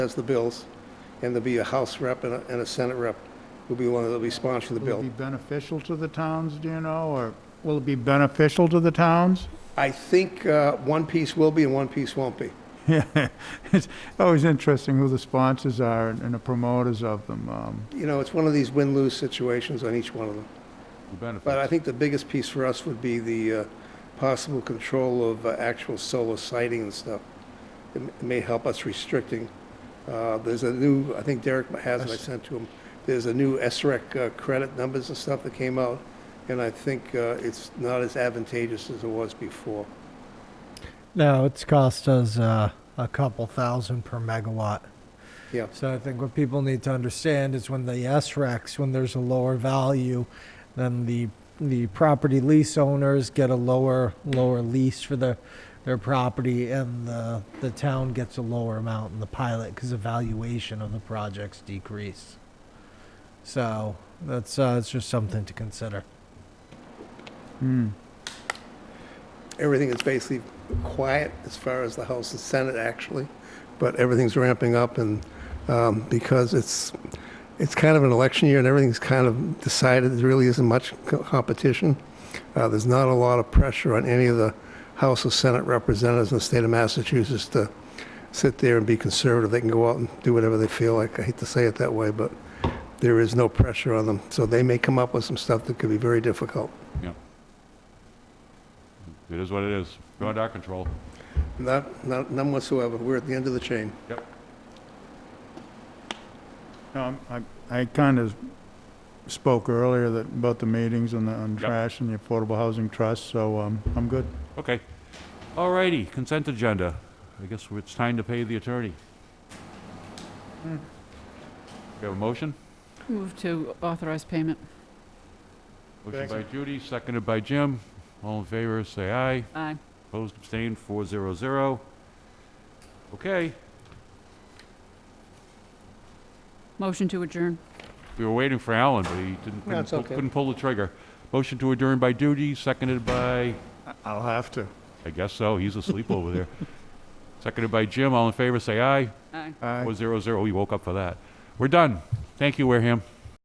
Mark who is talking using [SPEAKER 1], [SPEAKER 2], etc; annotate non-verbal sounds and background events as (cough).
[SPEAKER 1] has the bills, and there'll be a House rep and a, and a Senate rep will be one that'll be sponsoring the
[SPEAKER 2] Will it
[SPEAKER 1] bill.
[SPEAKER 2] be beneficial to the towns, do you know, or will it be beneficial to the towns?
[SPEAKER 1] I think, uh, one piece will be and one piece won't be.
[SPEAKER 2] (laughs) Yeah, it's always interesting who the sponsors are and and the promoters of them. um,
[SPEAKER 1] You know, it's one of these win-lose situations on each one of them. But I think the biggest piece for us would be the, uh, possible control of uh, actual solar sighting and stuff. It m- it may help us restricting, uh, there's a new, I think Derek has it, I
[SPEAKER 2] Yes.
[SPEAKER 1] sent to him, there's a new SREC uh, credit numbers and stuff that came out, and I think, uh, it's not as advantageous as it was before.
[SPEAKER 3] No, it's cost us uh, a couple thousand per megawatt.
[SPEAKER 1] Yeah.
[SPEAKER 3] So I think what people need to understand is when the SRECs, when there's a lower value, then the the property lease owners get a lower lower lease for their their property, and the the town gets a lower amount in the pilot because the valuation of the projects decrease. So that's uh, it's just something to consider.
[SPEAKER 2] hmm.
[SPEAKER 1] everything is basically quiet as far as the House and Senate, actually, but everything's ramping up, and um, because it's, it's kind of an election year and everything's kind of decided, there really isn't much co- competition. Uh, There's not a lot of pressure on any of the House or Senate representatives in the state of Massachusetts to sit there and be conservative. They can go out and do whatever they feel like. I hate to say it that way, but there is no pressure on them. So they may come up with some stuff that could be very difficult.
[SPEAKER 4] It is what it is. Beyond our control.
[SPEAKER 1] Not, not, none whatsoever. We're at the end of the chain.
[SPEAKER 2] No, I'm- I, I kind of spoke earlier that, about the meetings and the, on trash and the Affordable Housing Trust, so, um, I'm good.
[SPEAKER 4] Okay. All righty, consent agenda. I guess it's time to pay the attorney.
[SPEAKER 2] Hmm.
[SPEAKER 4] We have a motion?
[SPEAKER 5] Move to authorize payment.
[SPEAKER 4] Motion by
[SPEAKER 2] Second.
[SPEAKER 4] Judy, seconded by Jim. All in favor, say aye.
[SPEAKER 5] Aye.
[SPEAKER 4] Opposed, abstained, four zero zero. Okay,
[SPEAKER 5] Motion to adjourn.
[SPEAKER 4] we were waiting for Alan, but he didn't, couldn't
[SPEAKER 1] it's
[SPEAKER 4] pull-
[SPEAKER 1] okay.
[SPEAKER 4] couldn't pull the trigger. Motion to adjourn by Judy, seconded by,
[SPEAKER 2] I'll have to.
[SPEAKER 4] I guess so, he's asleep over there. Seconded by Jim. All in favor, say aye.
[SPEAKER 5] Aye.
[SPEAKER 2] Aye.
[SPEAKER 4] Four zero zero. We woke up for that. We're done. Thank you, Wareham.